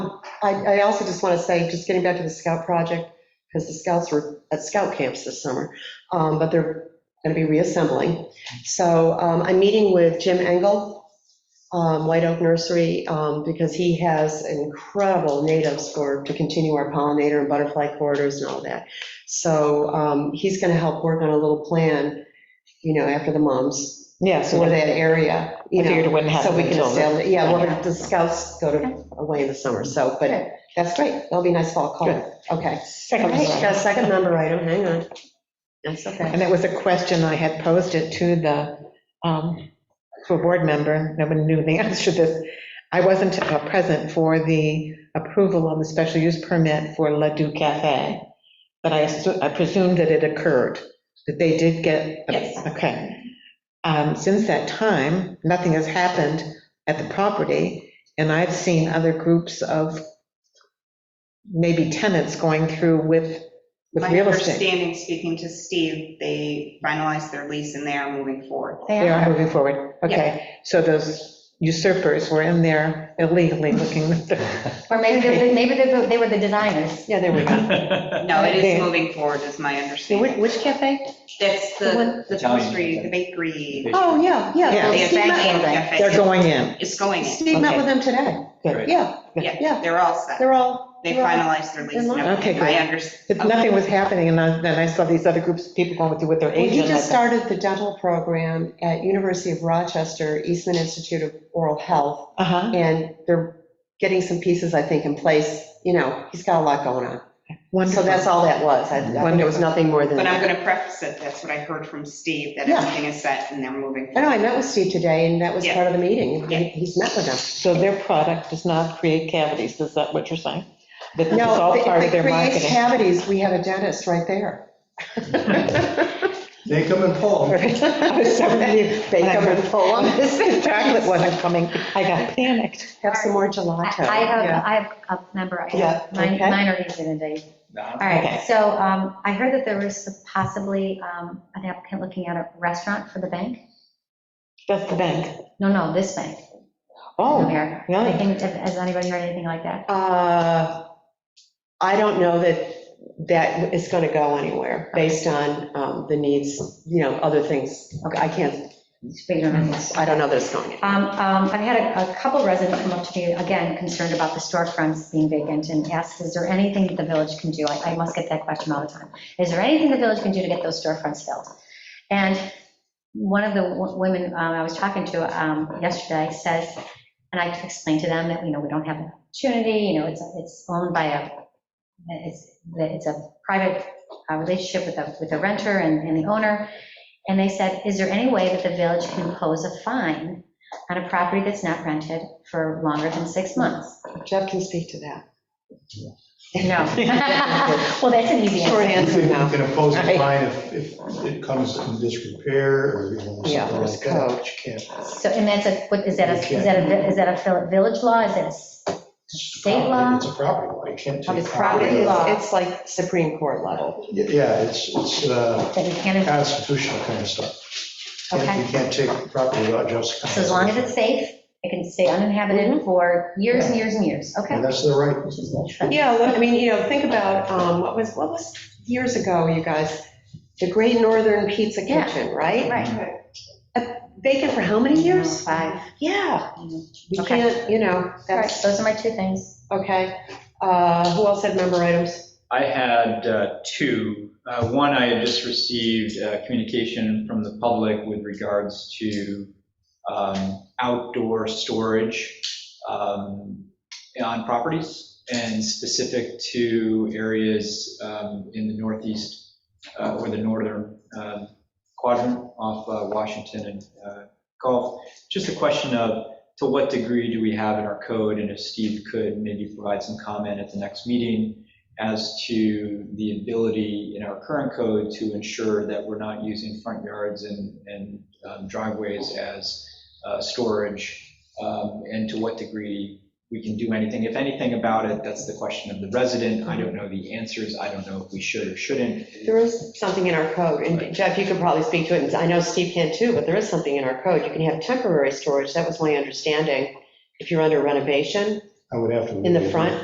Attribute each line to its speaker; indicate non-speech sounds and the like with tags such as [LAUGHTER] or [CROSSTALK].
Speaker 1: I, I also just want to say, just getting back to the scout project, because the scouts were at scout camps this summer, um, but they're going to be reassembling. So um, I'm meeting with Jim Engel, um, White Oak Nursery, um, because he has incredible natives for, to continue our pollinator and butterfly corridors and all that. So um, he's going to help work on a little plan, you know, after the moms,
Speaker 2: Yeah, so
Speaker 1: for
Speaker 2: I
Speaker 1: that area, you know.
Speaker 2: figured it wouldn't
Speaker 1: So
Speaker 2: happen
Speaker 1: we can
Speaker 2: until the.
Speaker 1: establish, yeah, we're, gonna- the scouts go to, away in the summer, so, but
Speaker 3: Good.
Speaker 1: that's great, that'll be a nice fall
Speaker 2: Good.
Speaker 1: call, okay. All
Speaker 2: second
Speaker 1: right,
Speaker 2: round.
Speaker 1: got a second member item, hang on. That's okay.
Speaker 2: And that was a question I had posed it to the, um, to a board member, nobody knew the [LAUGHS] answer to this. I wasn't uh, present for the approval of the special use permit for La Du Cafe, but I assu- I presume that it occurred, that they did get.
Speaker 3: Yes.
Speaker 2: Okay. Um, Since that time, nothing has happened at the property, and I've seen other groups of maybe tenants going through with, with
Speaker 4: My
Speaker 2: real estate.
Speaker 4: understanding, speaking to Steve, they finalized their lease and they are moving forward.
Speaker 3: They
Speaker 2: They
Speaker 3: are.
Speaker 2: are moving forward, okay. So those usurpers were in there [LAUGHS] illegally looking.
Speaker 3: Or maybe, they're- maybe they're the- they were the designers.
Speaker 1: Yeah, there we go.
Speaker 4: No, it
Speaker 2: They-
Speaker 4: is moving forward, is my
Speaker 1: Yeah,
Speaker 4: understanding.
Speaker 1: whi- Which cafe?
Speaker 4: That's
Speaker 3: The
Speaker 4: the,
Speaker 3: one-
Speaker 4: the
Speaker 5: Italian.
Speaker 4: pastry, the bakery.
Speaker 1: Oh, yeah, yeah.
Speaker 2: Yeah.
Speaker 1: well,
Speaker 4: The
Speaker 1: Steve met-
Speaker 4: Italian cafe.
Speaker 2: They're going in.
Speaker 4: It's going in.
Speaker 1: Steve met
Speaker 2: Okay.
Speaker 1: with them today,
Speaker 2: Good.
Speaker 1: yeah,
Speaker 4: Yeah,
Speaker 1: yeah.
Speaker 4: they're all set.
Speaker 1: they're all,
Speaker 4: They
Speaker 1: they're all-
Speaker 4: finalized their lease and
Speaker 1: they're
Speaker 2: Okay,
Speaker 4: everything.
Speaker 2: good.
Speaker 4: I
Speaker 2: If
Speaker 4: understand.
Speaker 2: nothing was happening, and I- then I saw these other groups of people going through with their
Speaker 1: Well,
Speaker 2: agent.
Speaker 1: you
Speaker 2: I
Speaker 1: just
Speaker 2: thought,
Speaker 1: started the dental program at University of Rochester, Eastman Institute of Oral Health,
Speaker 2: Uh-huh,
Speaker 1: and they're getting some pieces, I think, in place. You know, he's got a lot going on. So
Speaker 2: wonderful.
Speaker 1: that's all that was. I I think there was nothing more than
Speaker 4: But I'm
Speaker 1: that.
Speaker 4: going to preface it, that's what I heard from Steve, that
Speaker 1: Yeah.
Speaker 4: everything is set and they're moving.
Speaker 1: I know, I
Speaker 4: forward.
Speaker 1: met with Steve today, and that was
Speaker 4: Yeah.
Speaker 1: part of the meeting.
Speaker 4: Yeah.
Speaker 1: He- He's met with them.
Speaker 2: So their product does not create cavities, is that what you're saying? That this is
Speaker 1: No,
Speaker 2: all
Speaker 1: if
Speaker 2: part of
Speaker 1: they
Speaker 2: their
Speaker 1: create
Speaker 2: marketing?
Speaker 1: cavities, we have a dentist right there. [LAUGHS]
Speaker 5: They come and
Speaker 2: [LAUGHS]
Speaker 5: pull.
Speaker 1: Bake them and pull them.
Speaker 2: Chocolate wasn't coming, I got panicked.
Speaker 1: Have some more
Speaker 3: I
Speaker 1: gelato.
Speaker 3: I
Speaker 1: Yeah.
Speaker 3: have, I have a member, I
Speaker 1: Yeah,
Speaker 3: have, mine
Speaker 1: okay.
Speaker 3: mine are easy today.
Speaker 5: Nah.
Speaker 3: All
Speaker 2: Okay.
Speaker 3: right, so um, I heard that there was possibly um, an applicant looking at a restaurant for the bank.
Speaker 2: That's the bank.
Speaker 3: No, no, this bank in
Speaker 2: Oh,
Speaker 3: America.
Speaker 2: yeah.
Speaker 3: Anything- Has anybody heard anything like that?
Speaker 1: Uh, I don't know that that is going to go anywhere based on um, the needs, you know, other things. I can't,
Speaker 3: Just figure it out.
Speaker 1: I don't know that it's going.
Speaker 3: Um, um, I've had a a couple residents come up to me, again, concerned about the storefronts being vacant, and asked, is there anything that the village can do? I I must get that question all the time. Is there anything the village can do to get those storefronts filled? And one of the wo- women um, I was talking to um, yesterday says, and I explained to them that, you know, we don't have an opportunity, you know, it's it's owned by a, it's it's a private uh, relationship with a with a renter and and the owner. And they said, is there any way that the village can impose a fine on a property that's not rented for longer than six months?
Speaker 1: Jeff can speak to that.
Speaker 3: No. [LAUGHS] Well, that's an easy
Speaker 1: Short
Speaker 3: answer.
Speaker 5: You
Speaker 1: answer
Speaker 5: can you
Speaker 1: now.
Speaker 5: can oppose the
Speaker 2: Right.
Speaker 5: fine if, if it comes in disrepair or you know,
Speaker 1: Yeah,
Speaker 5: something
Speaker 1: there's
Speaker 5: like that,
Speaker 1: code.
Speaker 5: but you can't.
Speaker 3: So, and that's a, what, is that a, is that a, is that a vill- village law? Is that a s-
Speaker 5: It's a
Speaker 3: State
Speaker 5: property-
Speaker 3: law?
Speaker 5: It's a property law, you can't take.
Speaker 3: It's
Speaker 1: Property
Speaker 3: property law.
Speaker 1: is- It's like Supreme Court level.
Speaker 5: Yeah, it's, it's uh,
Speaker 3: that you can't,
Speaker 5: constitutional kind of stuff. You can't-
Speaker 3: okay?
Speaker 5: You can't take property law just.
Speaker 3: So as long as it's safe, it can stay uninhabited for years and years and years, okay?
Speaker 5: And that's the right,
Speaker 3: Which is what-
Speaker 1: Yeah, look, I mean, you know, think about, um, what was, what was years ago, you guys? The Great Northern Pizza
Speaker 3: Yeah.
Speaker 1: Kitchen, right?
Speaker 3: Right.
Speaker 1: Vacant for how many years?
Speaker 3: Five.
Speaker 1: Yeah, we
Speaker 3: Okay.
Speaker 1: can't, you know,
Speaker 3: All right,
Speaker 1: that's,
Speaker 3: those are my two things.
Speaker 1: okay. Uh, Who else had member items?
Speaker 6: I had uh, two. Uh, One, I had just received uh, communication from the public with regards to um, outdoor storage um, on properties and specific to areas um, in the northeast uh, or the northern um, quadrant off uh, Washington and uh, Gulf. Just a question of, to what degree do we have in our code? And if Steve could maybe provide some comment at the next meeting as to the ability in our current code to ensure that we're not using front yards and, and um, driveways as uh, storage, um, and to what degree we can do anything, if anything about it, that's the question of the resident. I don't know the answers, I don't know if we should or shouldn't.
Speaker 1: There is something in our code, and Jeff, you could probably speak to it, and I know Steve can too, but there is something in our code. You can have temporary storage, that was my understanding, if you're under renovation
Speaker 5: I would have to.
Speaker 1: in the front.